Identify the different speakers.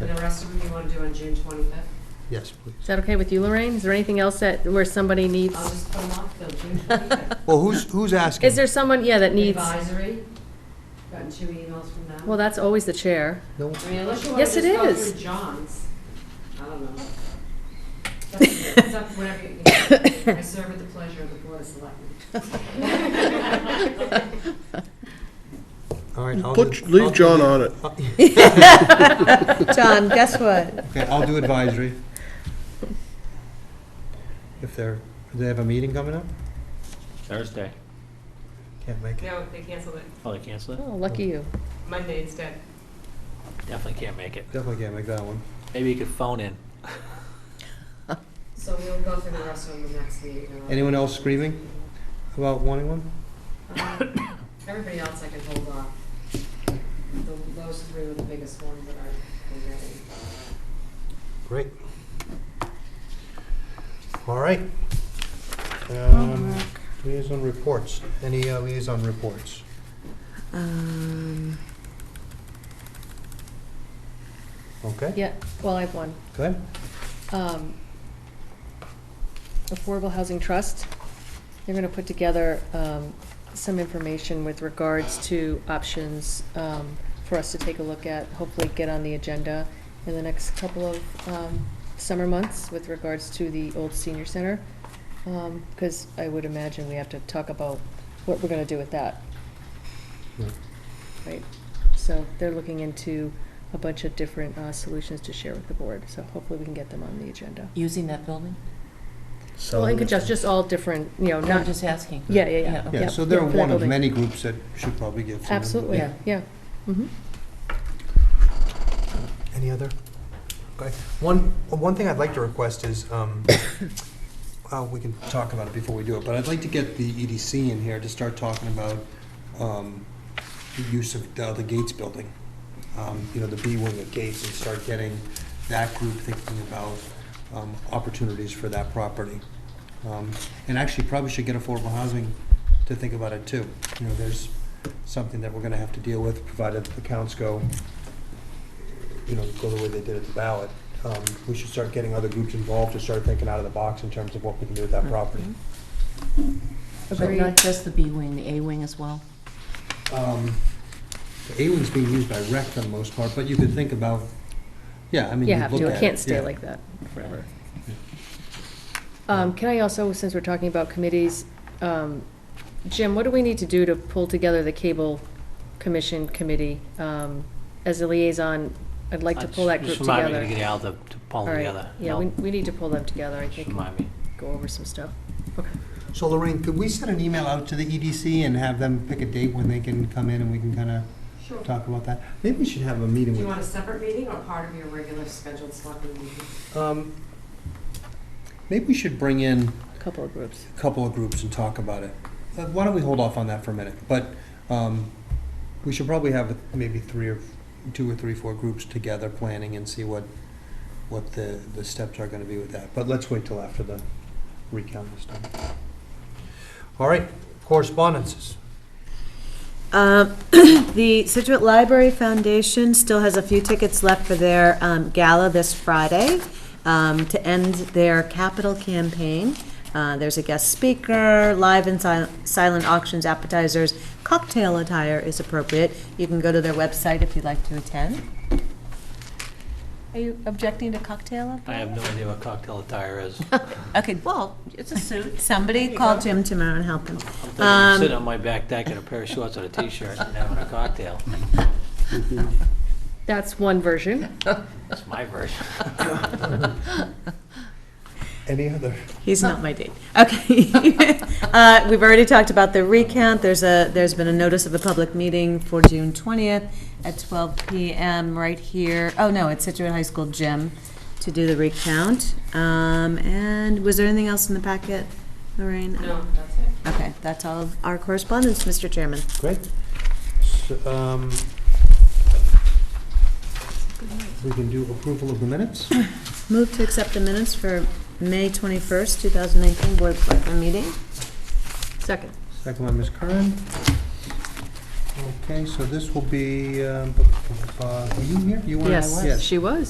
Speaker 1: And the rest of them you want to do on June twenty-fifth?
Speaker 2: Yes, please.
Speaker 3: Is that okay with you, Lorraine? Is there anything else that, where somebody needs?
Speaker 1: I'll just put them off till June twenty-fifth.
Speaker 2: Well, who's, who's asking?
Speaker 3: Is there someone, yeah, that needs,
Speaker 1: Advisory, gotten two emails from them.
Speaker 3: well, that's always the chair.
Speaker 1: I
Speaker 2: No,
Speaker 1: mean, unless you want
Speaker 3: Yes,
Speaker 1: to
Speaker 3: it
Speaker 1: just go
Speaker 3: is.
Speaker 1: through John's, I don't know. It's up to you. It's up to whatever you can. I serve at the pleasure of the Board of
Speaker 3: Oh,
Speaker 1: Selectmen.
Speaker 2: all right. I'll
Speaker 4: Put,
Speaker 2: do- I'll
Speaker 4: leave
Speaker 2: do-
Speaker 4: John on it.
Speaker 5: John, guess what?
Speaker 2: Okay, I'll do advisory. If they're, do they have a meeting coming up?
Speaker 6: Thursday.
Speaker 2: Can't make it.
Speaker 7: No, they canceled it.
Speaker 6: Oh, they cancel it?
Speaker 3: Oh, lucky you.
Speaker 7: Monday instead.
Speaker 6: Definitely can't make it.
Speaker 2: Definitely can't make that one.
Speaker 6: Maybe you could phone in.
Speaker 1: So we'll go through the rest of them next meeting. and I'll-
Speaker 2: Anyone else screaming about wanting one?
Speaker 1: Um, Everybody else I can hold off. The- Those three were the biggest ones that are ready.
Speaker 2: Great. All right. Um, Liaison reports. Any uh, liaison reports?
Speaker 5: Um,
Speaker 2: Okay,
Speaker 3: Yeah, well, I have one.
Speaker 2: go ahead.
Speaker 3: um, Affordable Housing Trust. They're going to put together um, some information with regards to options um, for us to take a look at, hopefully get on the agenda in the next couple of um, summer months with regards to the old senior center. Because I would imagine we have to talk about what we're going to do with that.
Speaker 2: Yeah.
Speaker 3: Right, so they're looking into a bunch of different uh, solutions to share with the board, so hopefully we can get them on the agenda.
Speaker 5: Using that building?
Speaker 3: Well, and just, just all different, you know,
Speaker 5: No, I'm
Speaker 3: not,
Speaker 5: just asking.
Speaker 3: yeah, yeah, yeah.
Speaker 5: Yeah,
Speaker 2: Yeah,
Speaker 3: yeah,
Speaker 2: so they're
Speaker 3: yeah, for that
Speaker 2: one of
Speaker 3: building.
Speaker 2: many groups that should probably give some. input.
Speaker 3: Absolutely,
Speaker 5: Yeah.
Speaker 3: yeah. Mhm.
Speaker 2: Any other? Okay. One, one thing I'd like to request is, um, uh, we can talk about it before we do it, but I'd like to get the EDC in here to start talking about um, the use of the other Gates building, Um, you know, the B wing of Gates, and start getting that group thinking about um, opportunities for that property. Um, And actually, probably should get affordable housing to think about it too. You know, there's something that we're gonna have to deal with, provided the counts go you know, go the way they did at the ballot, um, we should start getting other groups involved to start thinking out of the box in terms of what we can do with that property.
Speaker 5: But not just the B wing, the A wing as well?
Speaker 2: Um, The A wing's being used by rec for the most part, but you could think about, yeah, I mean,
Speaker 3: You
Speaker 2: you
Speaker 3: have
Speaker 2: look
Speaker 3: to,
Speaker 2: at
Speaker 3: it can't
Speaker 2: yeah.
Speaker 3: stay like that forever. Um, Can I also, since we're talking about committees, um, Jim, what do we need to do to pull together the Cable Commission Committee? Um, As a liaison, I'd like to pull that group
Speaker 6: Just remind me to
Speaker 3: together.
Speaker 6: get Al to to pull
Speaker 3: All
Speaker 6: them
Speaker 3: right,
Speaker 6: together.
Speaker 3: yeah,
Speaker 6: No,
Speaker 3: we, we need to pull them together, I
Speaker 6: Just
Speaker 3: think,
Speaker 6: remind me.
Speaker 3: go over some stuff. Okay.
Speaker 2: So Lorraine, could we send an email out to the EDC and have them pick a date when they can come in and we can kind of
Speaker 1: Sure.
Speaker 2: talk about that? Maybe we should have a meeting
Speaker 1: Do you
Speaker 2: with,
Speaker 1: want a separate meeting or part of your regular scheduled selectmen meeting?
Speaker 2: um, maybe we should bring in
Speaker 3: Couple of groups.
Speaker 2: couple of groups and talk about it. Uh, Why don't we hold off on that for a minute? But um, we should probably have maybe three or, two or three, four groups together planning and see what, what the, the steps are gonna be with that. But let's wait till after the recount is done. All right, correspondences.
Speaker 5: Um, The Situate Library Foundation still has a few tickets left for their um, gala this Friday um, to end their capital campaign. Uh, There's a guest speaker, live and sil- silent auctions, appetizers, cocktail attire is appropriate. You can go to their website if you'd like to attend. Are you objecting to cocktail?
Speaker 6: I have no idea what cocktail attire is.
Speaker 5: Okay, well, it's a suit. Somebody call Jim tomorrow and help him.
Speaker 6: I'm thinking
Speaker 5: Um,
Speaker 6: of sitting on my back deck in a pair of shorts and a t-shirt and having a cocktail.
Speaker 3: That's one version.
Speaker 6: That's my version.
Speaker 2: Any other?
Speaker 5: He's not my date. Okay. Uh, We've already talked about the recount. There's a, there's been a notice of a public meeting for June 20th at 12 PM right here. Oh, no, at Situate High School gym to do the recount. Um, And was there anything else in the packet, Lorraine?
Speaker 1: No, that's it.
Speaker 5: Okay, that's all of our correspondence, Mr. Chairman.
Speaker 2: Great. So, um, We can do approval of the minutes?
Speaker 5: Move to accept the minutes for May 21st, 2019 Board of Selectmen meeting.
Speaker 3: Second.
Speaker 2: Second one, Ms. Curran. Okay, so this will be, um, uh, were you here? You were-
Speaker 3: Yes, she was.